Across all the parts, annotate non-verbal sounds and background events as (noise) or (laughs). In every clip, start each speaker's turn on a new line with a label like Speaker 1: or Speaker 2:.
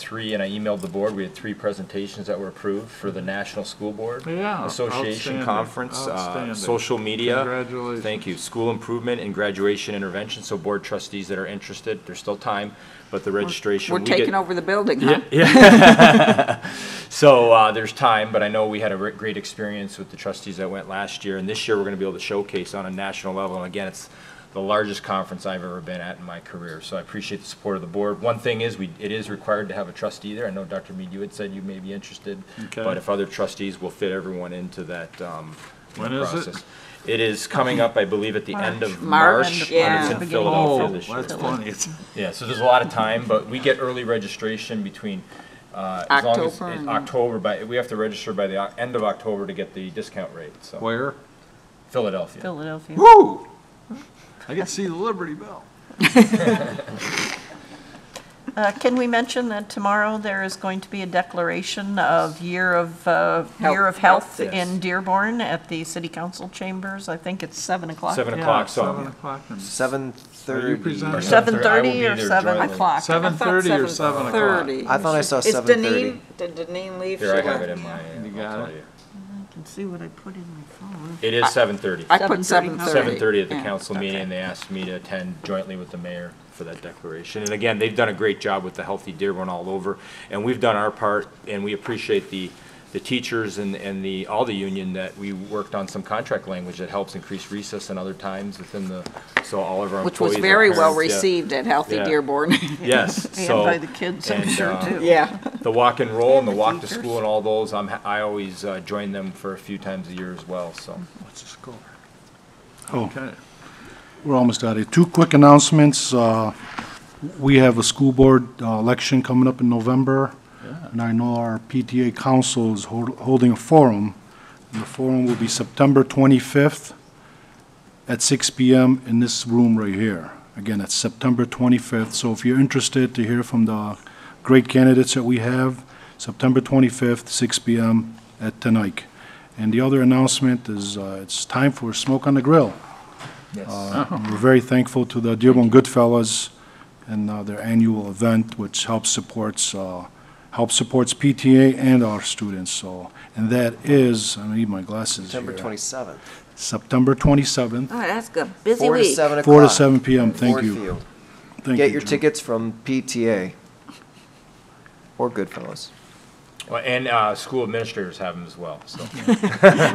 Speaker 1: three, and I emailed the board, we had three presentations that were approved for the National School Board
Speaker 2: Yeah,
Speaker 1: Association
Speaker 2: outstanding,
Speaker 1: Conference, uh,
Speaker 2: outstanding.
Speaker 1: social media.
Speaker 2: Congratulations.
Speaker 1: Thank you. School improvement and graduation intervention, so board trustees that are interested, there's still time, but the registration.
Speaker 3: We're
Speaker 1: we get-
Speaker 3: taking over the building, huh?
Speaker 1: So uh, there's time, but I know we had a re- great experience with the trustees that went last year, and this year we're going to be able to showcase on a national level. And again, it's the largest conference I've ever been at in my career, so I appreciate the support of the board. One thing is, we, it is required to have a trustee there. I know Dr. Mead, you had said you may be interested,
Speaker 2: Okay.
Speaker 1: but if other trustees will fit everyone into that um, you know,
Speaker 2: When is it?
Speaker 1: process. It is coming up, I believe, at the end of
Speaker 3: March.
Speaker 1: March,
Speaker 3: March, yeah.
Speaker 1: and it's in
Speaker 3: Beginning
Speaker 2: of
Speaker 1: Philadelphia
Speaker 2: Phil-
Speaker 1: this year.
Speaker 2: Oh, That's funny. It's-
Speaker 1: Yeah, so there's a lot of time, but we get early registration between, uh, as long as,
Speaker 3: October
Speaker 1: it's
Speaker 3: and-
Speaker 1: October, by, we have to register by the o- end of October to get the discount rate, so,
Speaker 2: Where?
Speaker 1: Philadelphia.
Speaker 4: Philadelphia.
Speaker 2: Woo! I can see the Liberty Bell.
Speaker 4: Uh, Can we mention that tomorrow there is going to be a declaration of Year of, uh, Year of Health
Speaker 1: Health, yes.
Speaker 4: in Dearborn at the City Council Chambers? I think it's 7 o'clock.
Speaker 1: Seven
Speaker 2: Yeah,
Speaker 1: o'clock,
Speaker 2: Seven
Speaker 1: so.
Speaker 2: o'clock. and-
Speaker 5: Seven thirty.
Speaker 2: presenting?
Speaker 1: or
Speaker 2: Seven
Speaker 1: 7:30, I will
Speaker 4: 7:30
Speaker 1: be
Speaker 4: or
Speaker 1: there
Speaker 4: 7
Speaker 1: jointly.
Speaker 4: o'clock?
Speaker 2: 7:30 or 7 o'clock?
Speaker 5: I thought I saw
Speaker 3: Is
Speaker 5: seven
Speaker 3: Deneen,
Speaker 5: thirty.
Speaker 3: did Deneen leave?
Speaker 1: Here, I
Speaker 3: She
Speaker 1: have it
Speaker 3: left.
Speaker 1: in my, uh, I'll
Speaker 2: You got
Speaker 1: tell
Speaker 2: it.
Speaker 1: you.
Speaker 4: I can see what I put in my phone.
Speaker 1: It is seven thirty.
Speaker 3: I put
Speaker 4: 7:30.
Speaker 3: seven thirty.
Speaker 1: Seven thirty at the council meeting, and they asked me to attend jointly with the mayor for that declaration. And again, they've done a great job with the Healthy Dearborn all over, and we've done our part, and we appreciate the, the teachers and, and the, all the union that we worked on some contract language that helps increase recess and other times within the, so all of our
Speaker 3: Which was
Speaker 1: employees, our
Speaker 3: very well
Speaker 1: parents, yeah.
Speaker 3: received at Healthy
Speaker 1: Yeah. (laughs)
Speaker 3: Dearborn.
Speaker 1: Yes,
Speaker 4: (laughs)
Speaker 1: so.
Speaker 4: And by the kids, I'm
Speaker 1: and,
Speaker 4: sure,
Speaker 1: uh,
Speaker 4: too.
Speaker 3: Yeah.
Speaker 1: The walk and roll and the
Speaker 4: And the
Speaker 1: walk to
Speaker 4: teachers.
Speaker 1: school and all those, I'm, ha- I always uh, join them for a few times a year as well, so.
Speaker 2: What's the score?
Speaker 6: Oh,
Speaker 2: Okay.
Speaker 6: we're almost out of here. Two quick announcements. Uh, We have a school board uh, election coming up in November, and I know our PTA council is hol- holding a forum. And the forum will be September 25th at 6 PM in this room right here. Again, it's September 25th, so if you're interested to hear from the great candidates that we have, September 25th, 6 PM at Tenike. And the other announcement is, uh, it's time for Smoke on the Grill. Uh, We're very thankful to the Dearborn Goodfellas and uh, their annual event, which helps supports, uh, helps supports PTA and our students, so. And that is, I need my glasses
Speaker 5: September
Speaker 6: here.
Speaker 5: twenty-seventh.
Speaker 6: September 27th,
Speaker 3: Oh, that's a busy
Speaker 5: Four to
Speaker 3: week.
Speaker 5: seven o'clock.
Speaker 6: Four to 7 p.m., thank
Speaker 5: Ford
Speaker 6: you.
Speaker 5: Field.
Speaker 6: Thank
Speaker 5: Get
Speaker 6: you,
Speaker 5: your
Speaker 6: Jim.
Speaker 5: tickets from PTA or Goodfellas.
Speaker 1: Well, And uh, school administrators have them as well, so.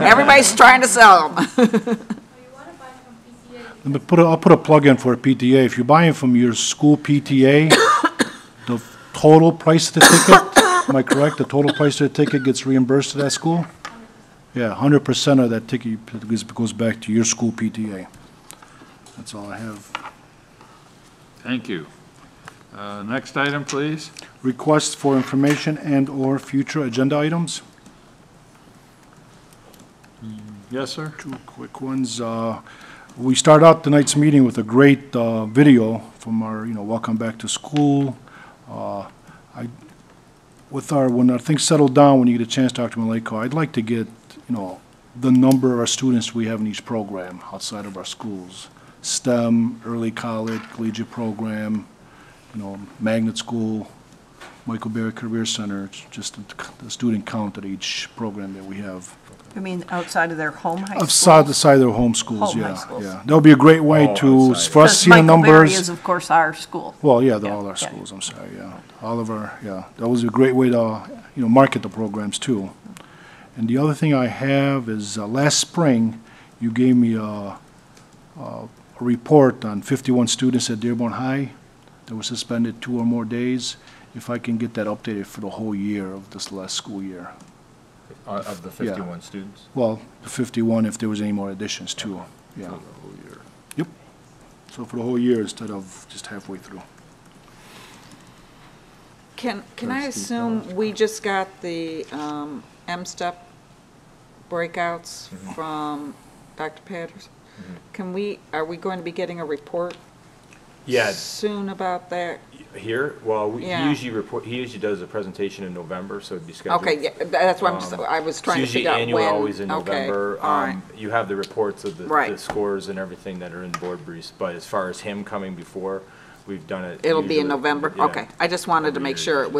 Speaker 3: Everybody's trying to sell them.
Speaker 7: Oh, you want to buy from PCA?
Speaker 6: Let me put a, I'll put a plug in for a PTA. If you buy it from your school PTA, (coughs) the total price of the ticket, am I correct? The total price of the ticket gets reimbursed to that school? Yeah, hundred percent of that ticket goes, goes back to your school PTA. That's all I have.
Speaker 2: Thank you. Uh, Next item, please.
Speaker 6: Requests for information and/or future agenda items?
Speaker 2: Yes, sir?
Speaker 6: Two quick ones. Uh, We start out tonight's meeting with a great uh, video from our, you know, Welcome Back to School. Uh, I, with our, when our things settle down, when you get a chance, Dr. Malenko, I'd like to get, you know, the number of our students we have in each program outside of our schools. STEM, early college, collegiate program, you know, magnet school, Michael Berry Career Center, it's just the- the student count at each program that we have.
Speaker 4: You mean outside of their home high
Speaker 6: Of
Speaker 4: school?
Speaker 6: side, the side of their home schools,
Speaker 4: Home high
Speaker 6: yeah,
Speaker 4: schools.
Speaker 6: yeah. That would be a great way
Speaker 1: Oh,
Speaker 6: to,
Speaker 1: outside.
Speaker 6: for us to see the
Speaker 4: Because Michael Berry is,
Speaker 6: numbers.
Speaker 4: of course, our school.
Speaker 6: Well, yeah, they're
Speaker 4: Yeah,
Speaker 6: all our
Speaker 4: yeah.
Speaker 6: schools, I'm sorry, yeah. All of our, yeah, that was a great way to, you know, market the programs too. And the other thing I have is, uh, last spring, you gave me a, a a report on fifty-one students at Dearborn High that were suspended two or more days. If I can get that updated for the whole year of this last school year.
Speaker 1: Uh, Of the
Speaker 6: Yeah.
Speaker 1: 51 students?
Speaker 6: Well, the 51 if there was any more additions too, yeah. Yep. So for the whole year instead of just halfway through.
Speaker 3: Can, can I assume we just got the um, M-step breakouts
Speaker 1: Mm-hmm.
Speaker 3: from Dr. Patterson? Can we, are we going to be getting a report
Speaker 1: Yeah,
Speaker 3: soon about that?
Speaker 1: here, well, we- he
Speaker 3: Yeah.
Speaker 1: usually report, he usually does a presentation in November, so it'd be scheduled.
Speaker 3: Okay, yeah, that's what I'm, just-
Speaker 1: Um,
Speaker 3: I was
Speaker 1: it's
Speaker 3: trying to figure out when.
Speaker 1: Usually annual, always in
Speaker 3: Okay,
Speaker 1: November.
Speaker 3: all right.
Speaker 1: Um, You have the reports of the, the
Speaker 3: Right.
Speaker 1: scores and everything that are in board briefs, but as far as him coming before, we've done it.
Speaker 3: It'll be in
Speaker 1: usually-
Speaker 3: November?
Speaker 1: yeah.
Speaker 3: Okay. I just wanted to
Speaker 1: Every
Speaker 3: make
Speaker 1: year.
Speaker 3: sure it was